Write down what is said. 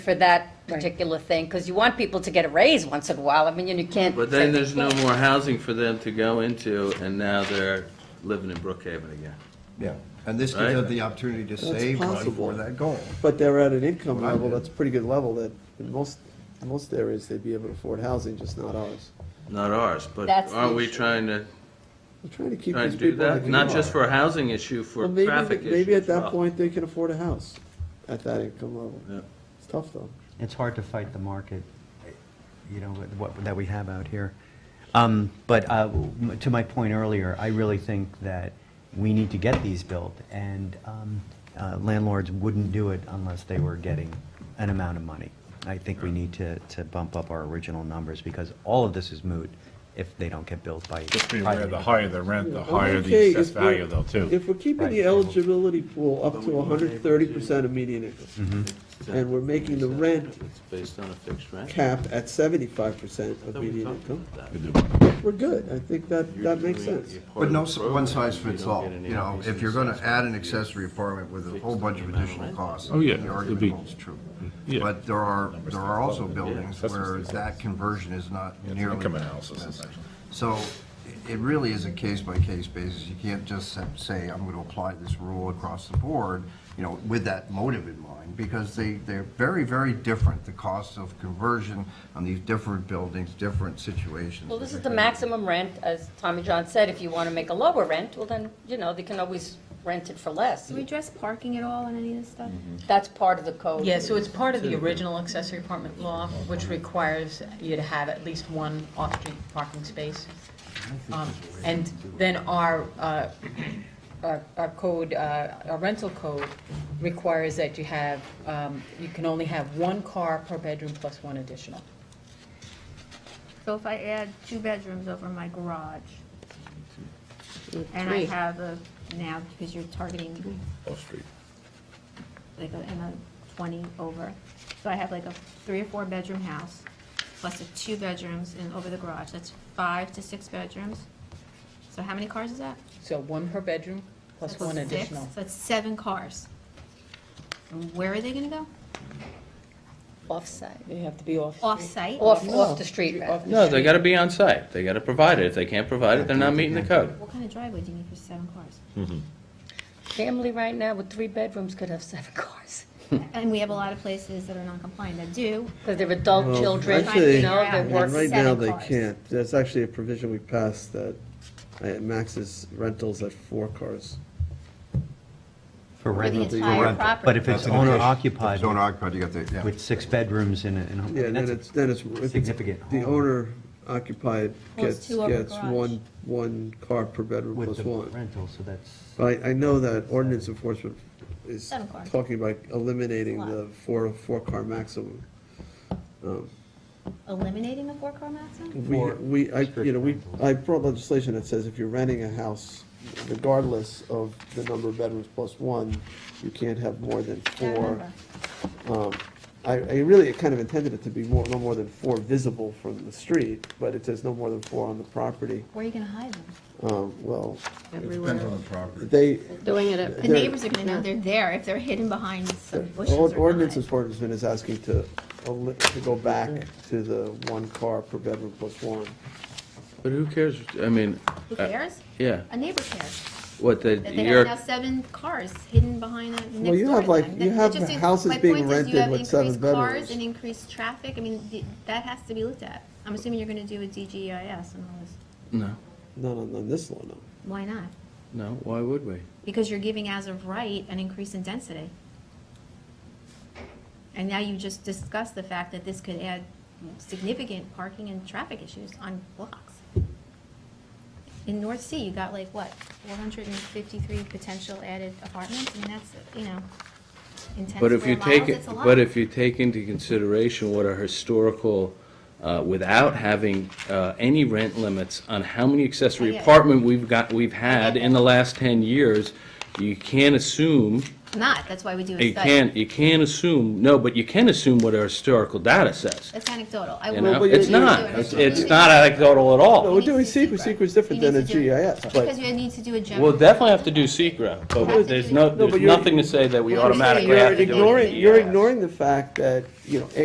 for that particular thing, because you want people to get a raise once in a while. I mean, you can't. But then there's no more housing for them to go into, and now they're living in Brookhaven again. Yeah, and this Right? gives them the opportunity to That's save money possible. for that goal. But they're at an income Well, I level, did. that's a pretty good level, that in most, most areas, they'd be able to afford housing, just not ours. Not ours, but That's the aren't we issue. trying to, We're trying to keep trying these to do people. on that? the Not come. just for a housing issue, for Well, maybe- traffic issue Maybe at as that well. point, they can afford a house, at that income level. Yeah. It's tough, though. It's hard to fight the market, you know, with what, that we have out here. Um, But uh, m- to my point earlier, I really think that we need to get these built, and um, uh, landlords wouldn't do it unless they were getting an amount of money. I think we need to, to bump up our original numbers, because all of this is moot if they don't get built by. Just be aware, the higher the rent, the Yeah, higher okay, the assessed if we're- value though, too. If we're keeping the Right. eligibility pool up to hundred and thirty percent of median income, Mm-hmm. And we're making the rent It's based on a fixed rent. cap at seventy-five percent I of thought we median talked income, about that. we're good, I think that, You're that makes doing- sense. you're part But of no the s- program one size if you fits don't all, get any you know, increase if in you're gonna assessment, add an you- accessory apartment with a whole bunch of additional costs. Oh, yeah, The it'd argument be- Mm, holds true. yeah. But there are, there are also buildings That's where what's- that conversion is not nearly. income analysis, as- essentially. So i- it really is a case-by-case basis. You can't just sa- say, I'm gonna apply this rule across the board, you know, with that motive in mind, because they, they're very, very different. The costs of conversion on these different buildings, different situations. Well, this is the maximum rent, as Tommy John said, if you want to make a lower rent, well then, you know, they can always rent it for less. Do we address parking at all on any of this stuff? That's part of the code. Yeah, so it's part of the original accessory apartment law, which requires you to have at least one off-street parking space. Um, And then our, uh, our our code, uh, our rental code requires that you have, um, you can only have one car per bedroom plus one additional. So if I add two bedrooms over my garage, and I have a, now, because you're targeting Off-street. like a, and a twenty over, so I have like a three or four bedroom house, plus the two bedrooms and over the garage, that's five to six bedrooms. So how many cars is that? So one per bedroom plus That's one six. additional. So that's seven cars. And Where are they gonna go? Offsite, They have to be off. Off-site? off, off the street, rather. No, they gotta be on site. They gotta provide it. If they can't provide it, they're not meeting the code. What kind of driveway do you need for seven cars? Family right now with three bedrooms could have seven cars, And we have a lot of places that are non-compliant that do, because they're adult Well, children, actually- you know, they're Yeah, And working. right now, Seven they cars. can't. There's actually a provision we passed that uh, maxes rentals at four cars. For For the rental. entire For rental. property. But if it's owner occupied Owner occupied, you got the, yeah. with six bedrooms in a, in a- I mean, Yeah, then that's a- it's, then it's. if it's- significant The home. owner occupied Well, it's gets, two over gets garage. one, one car per bedroom with plus the one. rental, so that's. But I, I know that ordinance enforcement is Seven cars. talking about eliminating Lot. the four, four-car maximum. Um, eliminating the four-car maximum? We, Or we, I, you know, we, restrict I brought legislation that says if you're renting a house, regardless of the number of bedrooms plus one, you can't have more than Yeah, I four. remember. Um, I, I really kind of intended it to be more, no more than four visible from the street, but it says no more than four on the property. Where are you gonna hide them? Um, well, Depends on the property. they, Doing it at The They're- neighbors are gonna know they're there if they're hidden behind some bushes or ord- not. ordinance enforcement is asking to, el- to go back to the one car per bedroom plus one. But who cares? I mean, Who uh, cares? yeah, A neighbor cares. what the, That they have your, now seven cars hidden behind the Well, next you door have to like- them. you That- have it just is- houses my being point is you rented have with seven increased cars bedrooms. And increased traffic, I mean, the- that has to be looked at. I'm assuming you're gonna do a DGIS and all this. no, Not on, on this law, no. Why not? no, why would we? Because you're giving as of right an increase in density. And now you just discussed the fact that this could add significant parking and traffic issues on blocks. In North Sea, you got like, what, 453 potential added apartments? I mean, that's, you know, in 10 But if you square take, miles, it, it's a lot. but if you take into consideration what are historical, uh, without having uh, any rent limits on how many accessory Oh, Yeah. apartment we've got, we've had in the last 10 years, you can't assume, Not, that's why we do a study. you can't, you can't assume, no, but you can assume what our historical data says. It's anecdotal. I You will- know, but it's you- not, You it's, need it's to- not anecdotal at No, we're all. doing SECR, SECR's different You than need a to do- GIS, Because but you need to do a general. We'll definitely have to do secret, but there's no, No, but there's you're- nothing to say that we Well, automatically you're have to do it. ignoring, you're Yes. ignoring the fact that, you know,